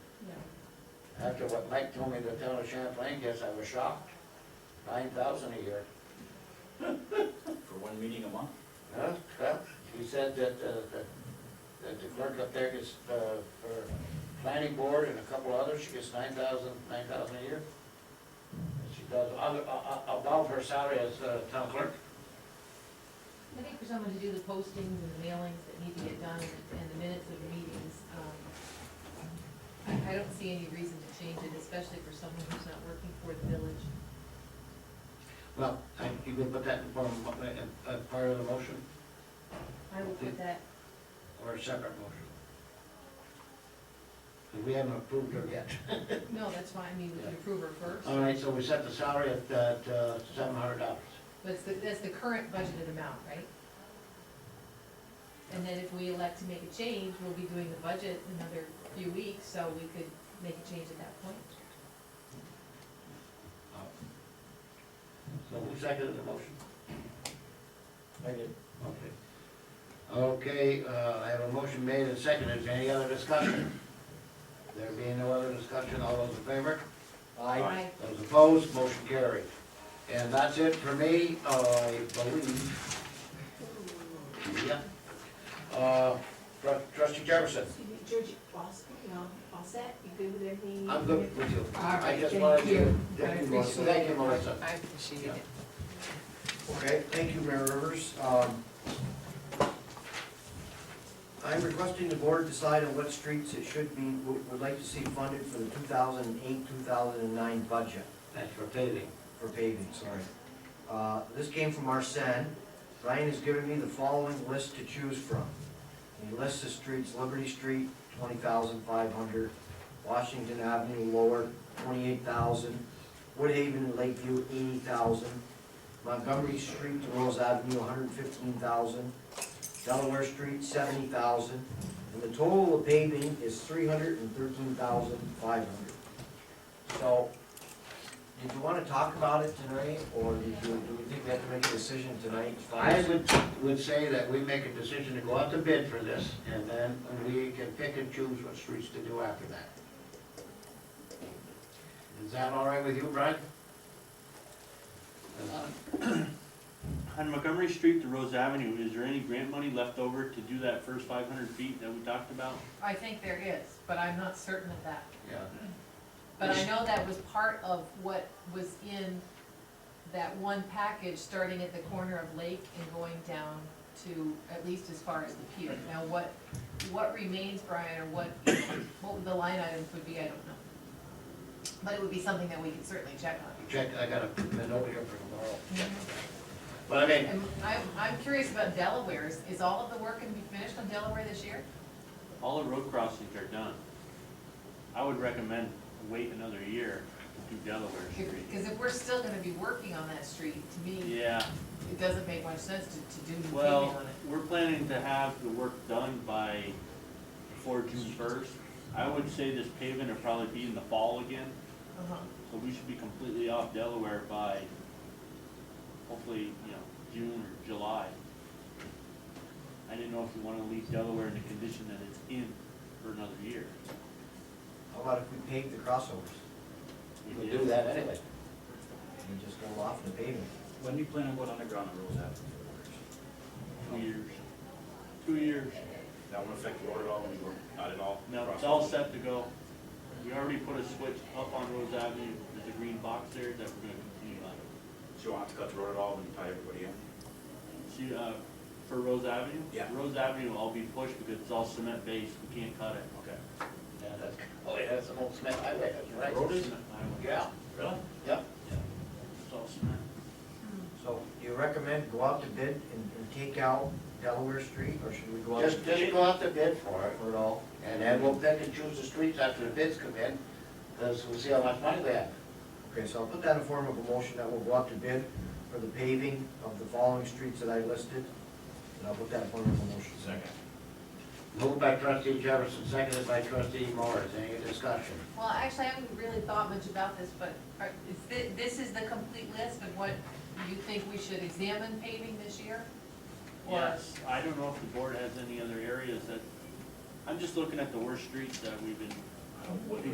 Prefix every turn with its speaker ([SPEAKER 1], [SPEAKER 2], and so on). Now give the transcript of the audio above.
[SPEAKER 1] After what Mike told me the town of Champlain gets, I was shocked. Nine thousand a year.
[SPEAKER 2] For one meeting a month?
[SPEAKER 1] Huh? Well, He said that, uh, that, that the clerk up there gets, uh, for planning board and a couple others, she gets nine thousand, nine thousand a year. And she does, other, uh, uh, above her salary as, uh, town clerk.
[SPEAKER 3] I think for someone to do the postings and the mailings that need to get done and the minutes of the meetings, um, I, I don't see any reason to change it, especially for someone who's not working for the village.
[SPEAKER 1] Well, I, you can put that in form, of, mo- uh, uh, part of the motion,
[SPEAKER 3] I will put that,
[SPEAKER 1] or a separate motion. 'Cause we haven't approved her yet.
[SPEAKER 3] no, that's fine, I mean, we can approve her first.
[SPEAKER 1] All right, so we set the salary at, at, uh, seven hundred dollars.
[SPEAKER 3] But it's the, that's the current budgeted amount, right? And then if we elect to make a change, we'll be doing the budget in another few weeks, so we could make a change at that point.
[SPEAKER 1] So who seconded the motion?
[SPEAKER 2] I did.
[SPEAKER 1] Okay. Okay, uh, I have a motion made and seconded. Is there any other discussion? There being no other discussion, all those in favor?
[SPEAKER 2] Aye.
[SPEAKER 1] Those opposed, motion carried. And that's it for me, I believe. Yeah. Uh, Tru- Trustee Jefferson,
[SPEAKER 4] Excuse me, George, all, set, you know, all set, you good with everything?
[SPEAKER 1] I'm good with you.
[SPEAKER 4] All
[SPEAKER 1] I
[SPEAKER 4] right,
[SPEAKER 1] just
[SPEAKER 4] thank
[SPEAKER 1] wanted to.
[SPEAKER 4] you.
[SPEAKER 5] Thank you, Melissa.
[SPEAKER 1] Thank you, Melissa.
[SPEAKER 5] I appreciate
[SPEAKER 1] it.
[SPEAKER 5] Okay, thank you, Mayor Rivers. Um, I'm requesting the board decide on what streets it should be, would would like to see funded for the 2008, 2009 budget
[SPEAKER 1] That's for paving.
[SPEAKER 5] for paving, sorry. Uh, This came from Arsen. Ryan has given me the following list to choose from. He lists the streets, Liberty Street, twenty thousand five hundred, Washington Avenue Lower, twenty-eight thousand, Woodhaven and Lakeview, eighty thousand, Montgomery Street to Rose Avenue, hundred and fifteen thousand, Delaware Street, seventy thousand, and the total of paving is three hundred and thirteen thousand five hundred. So, did you wanna talk about it tonight, or did you, do we think we have to make a decision tonight?
[SPEAKER 1] I would, would say that we make a decision to go out to bid for this, and then we can pick and choose what streets to do after that. Is that all right with you, Brian?
[SPEAKER 6] On Montgomery Street to Rose Avenue, is there any grant money left over to do that first five hundred feet that we talked about?
[SPEAKER 3] I think there is, but I'm not certain of that.
[SPEAKER 1] Yeah.
[SPEAKER 3] But I know that was part of what was in that one package, starting at the corner of Lake and going down to at least as far as the pier. Now, what, what remains, Brian, or what, what would the line items would be, I don't know. But it would be something that we could certainly check on.
[SPEAKER 1] Check, I got a bid over here for tomorrow. But I mean,
[SPEAKER 3] And I'm, I'm curious about Delaware, is, is all of the work gonna be finished on Delaware this year?
[SPEAKER 6] All the road crossings are done. I would recommend wait another year to do Delaware Street.
[SPEAKER 3] Because if we're still gonna be working on that street, to me,
[SPEAKER 6] Yeah,
[SPEAKER 3] it doesn't make much sense to, to do new paving
[SPEAKER 6] well,
[SPEAKER 3] on it.
[SPEAKER 6] we're planning to have the work done by before June first. I would say this paving will probably be in the fall again,
[SPEAKER 3] Uh-huh.
[SPEAKER 6] so we should be completely off Delaware by hopefully, you know, June or July. I didn't know if you wanna leave Delaware in the condition that it's in for another year.
[SPEAKER 5] How about if we pave the crossovers?
[SPEAKER 1] we'll do that anyway.
[SPEAKER 5] We just go off the pavement.
[SPEAKER 2] When do you plan on going underground on Rose Avenue for the
[SPEAKER 6] Two years. Two years.
[SPEAKER 7] That won't affect the order at all, when you work, not at all?
[SPEAKER 6] No, it's all set to go. We already put a switch up on Rose Avenue, there's a green box there that we're gonna continue on.
[SPEAKER 7] So you won't have to cut the road at all when you tie everybody in?
[SPEAKER 6] See, uh, for Rose Avenue?
[SPEAKER 7] Yeah.
[SPEAKER 6] Rose Avenue will all be pushed because it's all cement based, we can't cut it.
[SPEAKER 7] Okay.
[SPEAKER 1] Yeah, that's, oh, yeah, that's an old cement highway, that's right.
[SPEAKER 6] Road is cement highway.
[SPEAKER 1] Yeah,
[SPEAKER 6] Really?
[SPEAKER 1] yeah.
[SPEAKER 6] Yeah. It's all cement.
[SPEAKER 5] So you recommend go out to bid and, and take out Delaware Street, or should we go out?
[SPEAKER 1] Just, just go out to bid for it,
[SPEAKER 5] For it all?
[SPEAKER 1] and then we'll pick and choose the streets after the bids come in, because we'll see how much money we have.
[SPEAKER 5] Okay, so I'll put that in form of a motion that we'll go out to bid for the paving of the following streets that I listed. And I'll put that in form of a motion.
[SPEAKER 7] Second.
[SPEAKER 1] Moved by trustee Jefferson, seconded by trustee Morris. Any discussion?
[SPEAKER 3] Well, actually, I haven't really thought much about this, but are- is thi- this is the complete list of what you think we should examine paving this year? Or-
[SPEAKER 6] Yes, I don't know if the board has any other areas that, I'm just looking at the worst streets that we've been
[SPEAKER 7] I don't, what do you